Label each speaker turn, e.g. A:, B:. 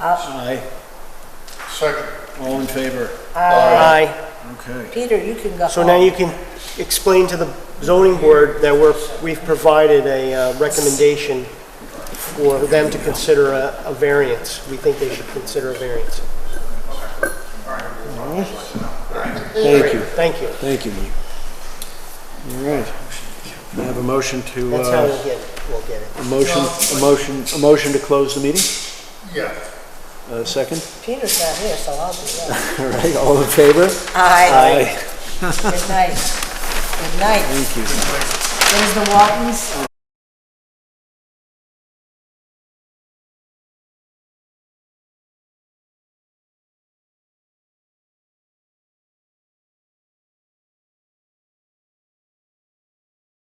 A: Aye.
B: Second.
A: All in favor?
C: Aye.
A: Okay.
D: Peter, you can go
C: So now you
D: home.
C: can explain to the zoning board that we're, we've provided a uh, recommendation for them to consider a, a variance. We think they should consider a variance.
A: Thank you.
C: Thank you.
A: Thank you, Mike. All right. We have a motion to,
C: That's how
A: uh,
C: we'll get, it. we'll get it.
A: a motion, a motion, a motion to close the meeting?
B: Yeah.
A: Uh, second?
D: Peter's not here, so I'll do that.
A: All right, all in favor?
D: Aye. Good night. Good night.
A: Thank you.
D: There's the Waltons.